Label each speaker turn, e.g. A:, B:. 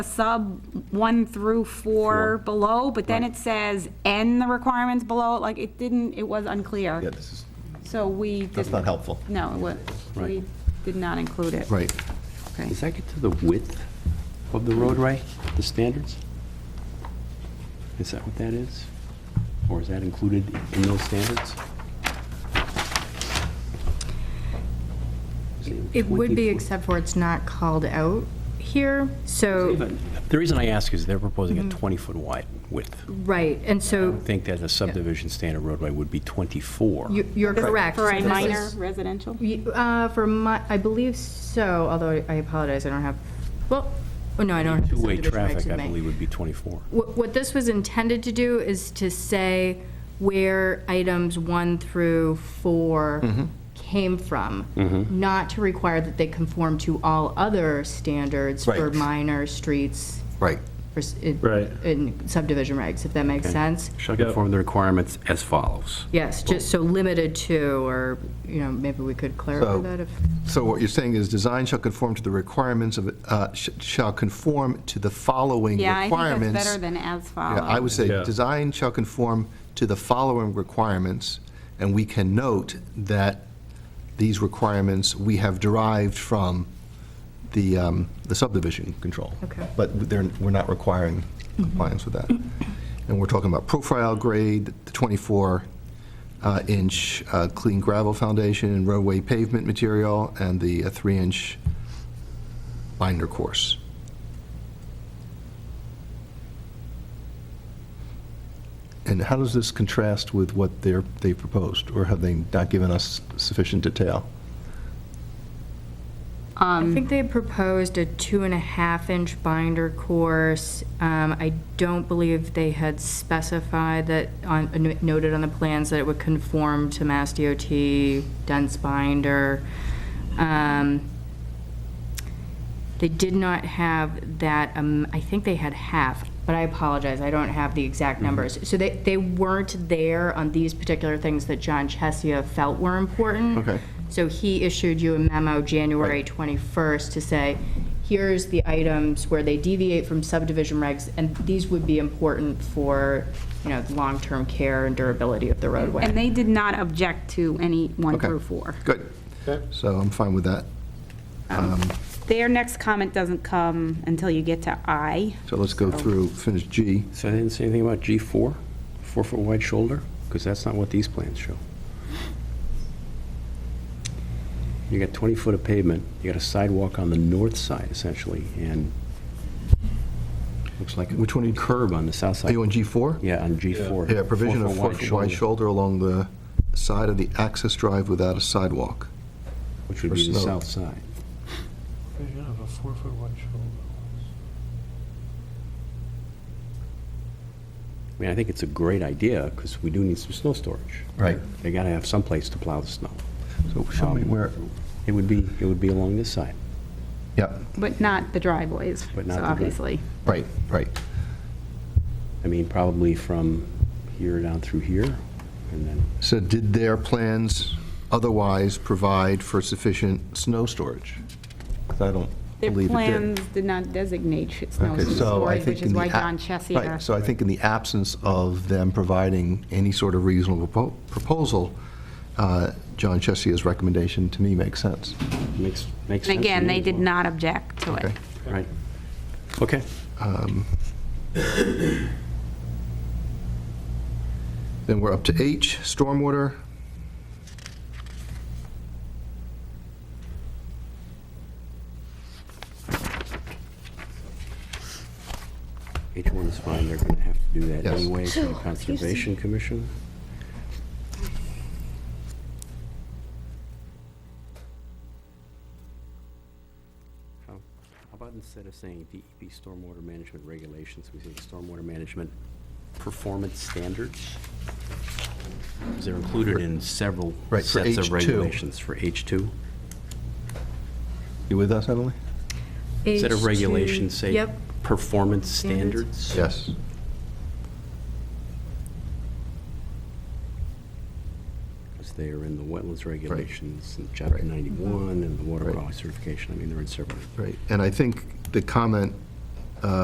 A: sub one through four below, but then it says, and the requirements below, like, it didn't, it was
B: Yeah,
A: unclear.
B: this is,
A: So we.
B: that's
A: didn't-
B: not helpful.
A: No, it wa- we
C: Right.
A: did not include it.
B: Right.
A: Okay.
C: Does that get to the width of the roadway, the standards? Is that what that is? Or is that included in those standards?
D: It would be, except for it's not called out here, so,
C: The reason I ask is they're proposing
D: Mm-hmm.
C: a 20-foot wide width.
D: right, and
C: I
D: so
C: think that a subdivision standard roadway would be 24.
D: you- you're correct.
A: For a
D: This
A: minor
D: is-
A: residential?
D: y- uh, For my, I believe so, although I apologize, I don't have, well, oh, no, I don't. have the
C: Two-way
D: subdivision regs
C: traffic,
D: with
C: I
D: me.
C: believe, would be 24.
D: What what this was intended to do is to say where items one through
C: Mm-hmm.
D: four came from, not to require that they conform to all other standards for
B: Right.
D: minor streets.
B: Right.
D: for s- in-
E: Right.
D: In subdivision regs, if that makes sense.
C: Shall conform the requirements as follows.
D: Yes, just so limited to, or, you know, maybe we could clarify
B: So-
D: that if,
B: So what you're saying is, design shall conform to the requirements of, uh, sh- shall conform to the following
A: Yeah, I
B: requirements.
A: think that's better than as
B: Yeah, I would
A: follows.
B: say,
E: Yeah.
B: design shall conform to the following requirements, and we can note that these requirements we have derived from the um, the subdivision control.
D: Okay.
B: But they're, we're not requiring compliance with that. And we're talking about profile grade, the 24-inch uh, clean gravel foundation, and roadway pavement material, and the 3-inch binder course. And how does this contrast with what they're, they proposed, or have they not given us sufficient detail?
D: I think they proposed a two and a half inch binder course. Um, I don't believe they had specified that, on noted on the plans that it would conform to Mass DOT dense binder. Um, They did not have that, um, I think they had half, but I apologize, I don't have the exact numbers. So they, they weren't there on these particular things that John Chesia felt were important.
B: Okay.
D: So he issued you a memo January 21st to say, here's the items where they deviate from subdivision regs, and these would be important for, you know, long-term care and durability of the roadway.
A: And they did not object to any one
B: Okay.
A: through four.
B: Good. So I'm fine with that.
A: Their next comment doesn't come until you get to I.
B: So let's go through, finish G.
C: So they didn't say anything about G4, four-foot wide shoulder? Because that's not what these plans show. You got 20 foot of pavement, you got a sidewalk on the north side essentially, and looks like.
B: Which one are you-
C: Curb on the south
B: Are
C: side.
B: you on G4?
C: Yeah, on G4.
B: Yeah, provision of
C: Four-foot
B: four-foot wide shoulder along the side of the access drive without a sidewalk.
C: Which would
B: for
C: be the
B: snow.
C: south side.
E: Vision of a four-foot wide shoulder.
C: I mean, I think it's a great idea because we do need some snow storage.
B: Right.
C: They got to have some place to plow the snow.
B: So show me
C: Um,
B: where,
C: It would be, it would be along this side.
B: yeah,
A: But not the driveways,
C: But not
A: so
C: the dri-
A: obviously.
B: right, right.
C: I mean, probably from here down through here and then
B: So did their plans otherwise provide for sufficient snow storage? 'Cause I don't
A: Their
B: believe it did.
A: plans did not designate sh- snow
B: Okay, so I
A: storage,
B: think
A: which
B: in
A: is
B: the
A: why
B: a-
A: John
B: Right,
A: Chesia.
B: so I think in the absence of them providing any sort of reasonable propo- proposal, uh, John Chessia's recommendation to me makes sense.
C: it makes, makes sense.
A: And
C: to
A: again,
C: me
A: they
C: as
A: did
C: well.
A: not object to it.
B: Okay.
C: Right. Okay.
B: Then we're up to H, stormwater.
C: H1 is fine. They're going to have to do that
B: Yes.
C: anyway for the Conservation Commission. How how about instead of saying DEP stormwater management regulations, we say stormwater management performance standards? Because they're included in several
B: Right, for
C: sets of
B: H2.
C: regulations for H2.
B: You with us, Emily?
C: Instead of regulations, say
D: Yep,
C: performance
D: Standards.
C: standards?
B: Yes.
C: Because they are in the wetlands regulations, and chapter
B: Right.
C: 91, and the water
B: Right.
C: quality certification, I mean, they're in several.
B: Right, and I think the comment uh,